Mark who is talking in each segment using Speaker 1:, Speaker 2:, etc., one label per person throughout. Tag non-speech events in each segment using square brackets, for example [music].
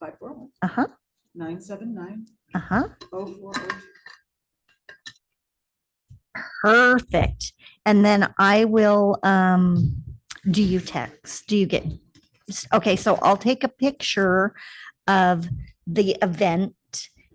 Speaker 1: five four one,
Speaker 2: Uh-huh,
Speaker 1: nine seven nine,
Speaker 2: uh-huh.
Speaker 1: oh four oh two.
Speaker 2: Perfect. And then I will, um, do you text? Do you get? s- Okay, so I'll take a picture of the event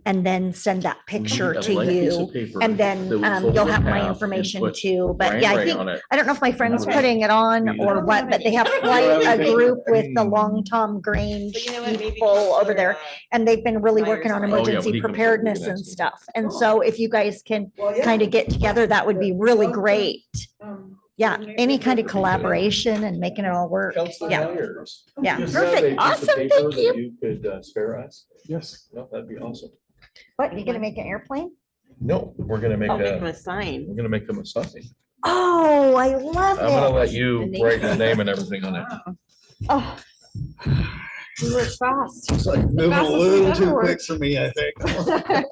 Speaker 2: and then send that picture to you. And then, um, you'll have my information too. But yeah, I think, I don't know if my friend's
Speaker 3: Okay.
Speaker 2: putting it on
Speaker 3: We-
Speaker 2: or what, but they have
Speaker 3: don't
Speaker 2: quite
Speaker 3: have
Speaker 2: a
Speaker 3: anything.
Speaker 2: group with the
Speaker 3: Hmm.
Speaker 2: Long Tom Grange
Speaker 4: But you know what, maybe
Speaker 2: people over
Speaker 4: consider,
Speaker 2: there.
Speaker 4: uh,
Speaker 2: And they've been really working on
Speaker 4: Oh, yeah, we
Speaker 2: emergency
Speaker 3: can put it in
Speaker 2: preparedness
Speaker 3: there
Speaker 2: and
Speaker 3: too.
Speaker 2: stuff. And
Speaker 1: Cool.
Speaker 2: so if you guys can
Speaker 1: Well, yeah,
Speaker 2: kind of get together, that would be really
Speaker 1: Okay.
Speaker 2: great.
Speaker 1: um,
Speaker 2: Yeah,
Speaker 1: Coordinate
Speaker 2: any
Speaker 1: with
Speaker 2: kind of
Speaker 1: everybody.
Speaker 2: collaboration and making it all work. Yeah, yeah,
Speaker 3: Just have a
Speaker 2: perfect,
Speaker 3: piece of
Speaker 2: awesome, thank
Speaker 3: paper that
Speaker 2: you.
Speaker 3: You could uh, spare us?
Speaker 5: Yes.
Speaker 3: No, that'd be awesome.
Speaker 2: What, you gonna make an airplane?
Speaker 3: No, we're gonna make
Speaker 4: I'll make him
Speaker 3: a,
Speaker 4: a sign.
Speaker 3: we're gonna make them a sausage.
Speaker 2: Oh, I
Speaker 3: I'm gonna
Speaker 2: love it.
Speaker 3: let you
Speaker 4: The
Speaker 3: write the name and everything [laughs] on it.
Speaker 2: Oh,
Speaker 4: We were fast.
Speaker 6: It's like moving a
Speaker 4: fastest
Speaker 6: little
Speaker 4: we've
Speaker 6: too
Speaker 4: ever
Speaker 6: quick for me,
Speaker 2: [laughs]
Speaker 6: I think.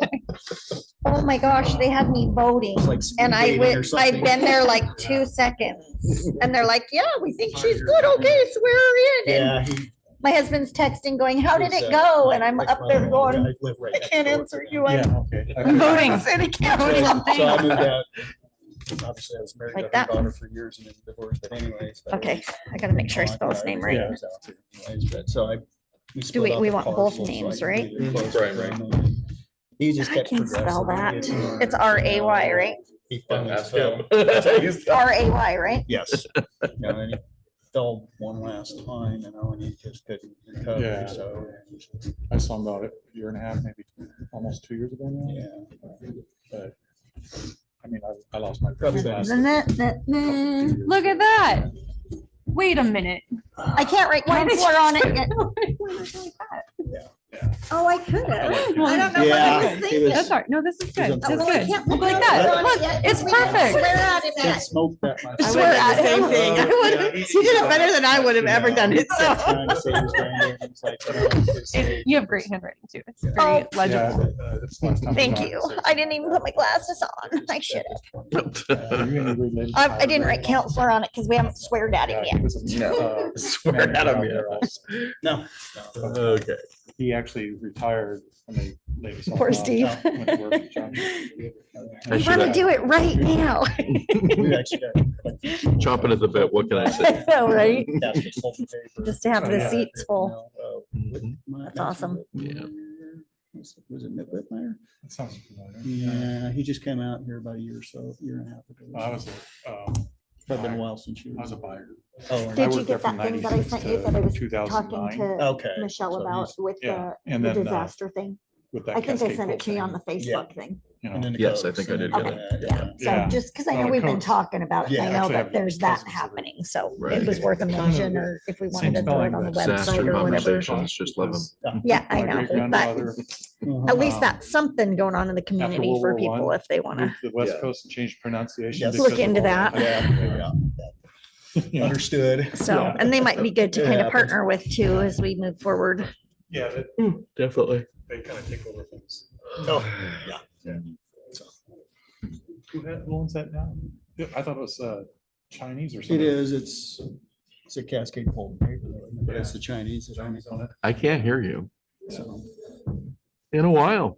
Speaker 2: oh my gosh, they had me voting
Speaker 6: It's like speed
Speaker 2: and I
Speaker 6: dating or
Speaker 2: went, I've
Speaker 6: something.
Speaker 2: been there
Speaker 6: [laughs]
Speaker 2: like two seconds. And they're like, yeah, we think she's good. Okay, swear her in. And
Speaker 6: Yeah. he-
Speaker 2: my husband's texting going, how did
Speaker 6: he's,
Speaker 2: it
Speaker 6: uh,
Speaker 2: go? And I'm
Speaker 6: like
Speaker 2: up
Speaker 6: my
Speaker 2: there
Speaker 6: mom,
Speaker 2: going,
Speaker 6: I live right
Speaker 2: I
Speaker 6: next
Speaker 2: can't
Speaker 6: door to
Speaker 2: answer
Speaker 6: him.
Speaker 2: you. I'm
Speaker 3: okay.
Speaker 6: [laughs]
Speaker 2: voting [laughs] city council.
Speaker 6: So I
Speaker 2: [laughs]
Speaker 6: moved out. Obviously, I was
Speaker 2: Like
Speaker 6: married to her
Speaker 2: that.
Speaker 6: daughter for years and then divorced, but anyways. I
Speaker 2: Okay,
Speaker 6: was-
Speaker 2: I gotta make sure I spell his name right.
Speaker 6: Yeah, I was out there anyways, but So I.
Speaker 2: we-
Speaker 6: split up
Speaker 2: we
Speaker 6: the
Speaker 2: want both
Speaker 6: parcels so I
Speaker 2: names,
Speaker 6: could
Speaker 2: right?
Speaker 6: be really close
Speaker 3: Right,
Speaker 6: to him, and He just
Speaker 2: I
Speaker 6: kept
Speaker 2: can't spell
Speaker 6: progressing.
Speaker 2: that. It's R.A.Y., right?
Speaker 6: He finally
Speaker 3: Ask
Speaker 6: spelled-
Speaker 3: him. [laughs]
Speaker 2: [laughs]
Speaker 3: He's-
Speaker 2: R A Y, right?
Speaker 6: Yes. [laughs] You know, and he fell one last time, you know, and he just couldn't
Speaker 5: Yeah.
Speaker 6: recover, so,
Speaker 5: I saw him about a year and a half, maybe almost two years ago now.
Speaker 6: yeah.
Speaker 5: But I mean, I, I lost my.
Speaker 6: Probably
Speaker 5: grandson.
Speaker 6: best.
Speaker 2: Mm,
Speaker 7: Look at that. Wait a minute.
Speaker 2: I can't write
Speaker 7: Why did
Speaker 2: counselor on it. yet.
Speaker 5: Yeah.
Speaker 2: Oh, I could have.
Speaker 7: I
Speaker 2: don't
Speaker 6: know what I Yeah, was it thinking. was-
Speaker 7: That's all right. Oh, No, this is good.
Speaker 6: on
Speaker 7: This
Speaker 2: Oh,
Speaker 7: is
Speaker 2: well, I
Speaker 7: good.
Speaker 2: can't put
Speaker 7: Look like
Speaker 2: counselor
Speaker 7: that.
Speaker 2: on it
Speaker 7: Look,
Speaker 2: yet,
Speaker 7: it's
Speaker 2: we can
Speaker 7: perfect.
Speaker 2: Swear at him.
Speaker 6: Can't smoke that much.
Speaker 4: I
Speaker 2: Swear
Speaker 4: would've done
Speaker 2: at
Speaker 4: the same thing. I [laughs] would've- She did
Speaker 3: [laughs]
Speaker 4: it better than I would have ever done it, so.
Speaker 6: Trying to say he's going there, and it's like, you know, it's-
Speaker 7: It- You have great handwriting too. It's
Speaker 2: Oh.
Speaker 7: very
Speaker 5: Yeah,
Speaker 7: legible.
Speaker 5: uh, that's the last time I
Speaker 2: Thank
Speaker 5: got it,
Speaker 2: you.
Speaker 5: so- Uh,
Speaker 2: I didn't even put my glasses on. I should.
Speaker 5: Are you any related to
Speaker 2: I, I didn't write
Speaker 5: Tyler Durden?
Speaker 2: counselor on it because we haven't sweared at him
Speaker 5: Yeah, he
Speaker 2: yet.
Speaker 5: was a- uh,
Speaker 3: Swear at him, yeah.
Speaker 6: No. no.
Speaker 3: Okay.
Speaker 5: He actually retired when they. they saw
Speaker 2: Poor
Speaker 5: him
Speaker 2: Steve.
Speaker 5: out when he worked
Speaker 2: [laughs]
Speaker 5: at John Deere.
Speaker 3: I
Speaker 2: We
Speaker 3: should
Speaker 2: want to
Speaker 3: have-
Speaker 2: do it right now.
Speaker 6: We actually got
Speaker 3: Chomping at the bit, what can I say?
Speaker 2: [laughs] I know,
Speaker 6: [laughs]
Speaker 2: right?
Speaker 6: cast a pulp of paper,
Speaker 2: Just to have
Speaker 5: Oh, Yeah.
Speaker 2: the seats full.
Speaker 6: you
Speaker 3: Mm-hmm.
Speaker 6: know, uh, Whitmer-
Speaker 2: That's awesome.
Speaker 3: Yeah.
Speaker 6: Was it Mitt Whitmire?
Speaker 5: That sounds
Speaker 6: [laughs]
Speaker 5: familiar. Uh,
Speaker 6: Yeah, he just came out here about a year or so, year and a half ago.
Speaker 5: I was, a, um,
Speaker 6: Probably been a while since you.
Speaker 5: I was a buyer.
Speaker 6: Oh,
Speaker 5: I
Speaker 2: Did you
Speaker 5: worked there
Speaker 2: get
Speaker 5: from
Speaker 2: that thing that I
Speaker 5: 96
Speaker 2: sent you that I
Speaker 5: to
Speaker 2: was
Speaker 5: 2009.
Speaker 2: Talking to
Speaker 6: okay.
Speaker 2: Michelle
Speaker 6: so
Speaker 2: about
Speaker 6: he's-
Speaker 2: with
Speaker 5: Yeah,
Speaker 2: the
Speaker 5: and
Speaker 2: the
Speaker 5: then. uh,
Speaker 2: disaster thing.
Speaker 5: with that
Speaker 2: I think I
Speaker 5: cascade
Speaker 2: sent it
Speaker 5: bolt
Speaker 2: to you on
Speaker 5: thing,
Speaker 2: the Facebook thing.
Speaker 5: you know.
Speaker 6: and then the
Speaker 3: Yes, I
Speaker 6: Cokes,
Speaker 3: think
Speaker 6: and
Speaker 3: I
Speaker 6: then
Speaker 3: did
Speaker 6: all
Speaker 2: get
Speaker 6: that, Yeah.
Speaker 2: So
Speaker 5: Yeah.
Speaker 2: just because I
Speaker 5: No,
Speaker 2: know
Speaker 5: it
Speaker 2: we've been
Speaker 5: comes-
Speaker 2: talking about it,
Speaker 6: Yeah,
Speaker 2: I know
Speaker 5: actually
Speaker 2: that
Speaker 5: have
Speaker 2: there's that
Speaker 5: cousins that are-
Speaker 2: happening, so
Speaker 3: Right.
Speaker 2: it was worth a
Speaker 5: Kind of
Speaker 2: mention or if we wanted
Speaker 5: Same
Speaker 2: to throw it
Speaker 5: spelling,
Speaker 2: on the
Speaker 5: but
Speaker 2: website
Speaker 3: Disaster
Speaker 2: or whatever.
Speaker 3: conversations, just love them.
Speaker 2: Yeah, I
Speaker 5: My
Speaker 2: know, but
Speaker 5: great-granddaughter
Speaker 2: at
Speaker 6: Mhm.
Speaker 2: least
Speaker 5: um,
Speaker 2: that's something going on in the community
Speaker 5: World
Speaker 2: for
Speaker 5: War
Speaker 2: people
Speaker 5: One, Mm-hmm.
Speaker 2: if they want to.
Speaker 5: moved to the West
Speaker 2: [laughs]
Speaker 3: Yeah.
Speaker 5: Coast and changed pronunciation.
Speaker 6: Yes.
Speaker 5: because
Speaker 2: Look
Speaker 5: of
Speaker 2: into
Speaker 5: all
Speaker 2: that.
Speaker 6: Yeah,
Speaker 5: You
Speaker 6: yeah,
Speaker 5: know,
Speaker 6: Understood.
Speaker 2: So,
Speaker 5: Yeah.
Speaker 2: and they might be good to
Speaker 6: It
Speaker 2: kind of
Speaker 6: happens.
Speaker 2: partner with too as we move forward.
Speaker 5: Yeah, that-
Speaker 3: Definitely.
Speaker 5: they kind of take over things.
Speaker 6: Oh, yeah.
Speaker 5: Who had- who owns that now? Yeah, I thought it was uh, Chinese or something.
Speaker 6: It is, it's, it's a cascade pole, but it's the Chinese. that own it.
Speaker 3: I can't hear you
Speaker 6: So
Speaker 3: in a while.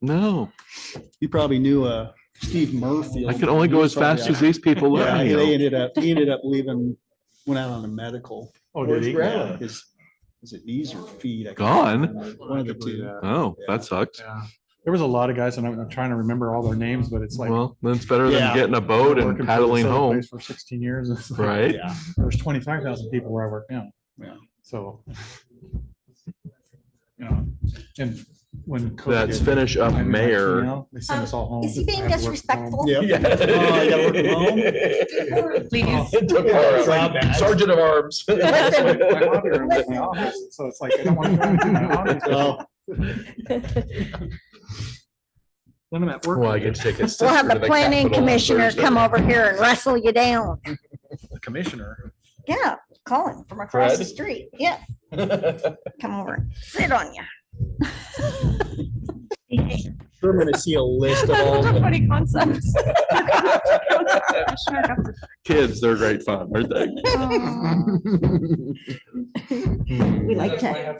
Speaker 3: No,
Speaker 6: You probably knew uh, Steve Murphy.
Speaker 3: I can only go as fast as these people. let
Speaker 6: Yeah,
Speaker 3: me go.
Speaker 6: they ended up, he ended up leaving, went out on a medical.
Speaker 5: Oh, did he?
Speaker 6: Yeah, His, is it knees or feet? I can't
Speaker 3: Gone?
Speaker 6: remember. One of the two.
Speaker 5: Yeah.
Speaker 3: Oh,
Speaker 6: Yeah.
Speaker 3: that sucks.
Speaker 5: There was a lot of guys and I'm I'm trying to remember all their names, but it's like.
Speaker 3: Well, that's better than
Speaker 6: Yeah.
Speaker 3: getting a
Speaker 5: I've been
Speaker 3: boat
Speaker 5: working for
Speaker 3: and
Speaker 5: this
Speaker 3: paddling
Speaker 5: other
Speaker 3: home,
Speaker 5: place For sixteen years. [laughs] It's like,
Speaker 3: right?
Speaker 6: Yeah,
Speaker 5: There's twenty-five thousand people where I work now.
Speaker 6: yeah.
Speaker 5: So. You know, and when. COVID
Speaker 3: Let's
Speaker 5: hit,
Speaker 3: finish up
Speaker 5: I knew my
Speaker 3: mayor.
Speaker 5: female, They sent us all home.
Speaker 2: Is he being
Speaker 5: I had to work from home.
Speaker 2: disrespectful?
Speaker 6: Yep. Oh, I gotta work from home?
Speaker 7: Please.
Speaker 3: Sergeant of arms.
Speaker 5: It's like [laughs] my
Speaker 2: Listen.
Speaker 3: [laughs]
Speaker 5: hobby room is my office, So it's like, I don't want to go into my office.
Speaker 6: Oh,
Speaker 5: When I'm at work.
Speaker 3: Well, I get to take a.
Speaker 2: We'll have the planning commissioner come over here and wrestle you down.
Speaker 6: Commissioner.
Speaker 2: Yeah, call him from across the
Speaker 3: Fred?
Speaker 2: street.
Speaker 5: [laughs]
Speaker 2: Yeah, come over and sit on you.
Speaker 6: We're gonna see a list of all.
Speaker 7: [laughs] That's such a
Speaker 6: the-
Speaker 7: funny concept.
Speaker 3: Kids, they're great fun, aren't they?
Speaker 2: We like to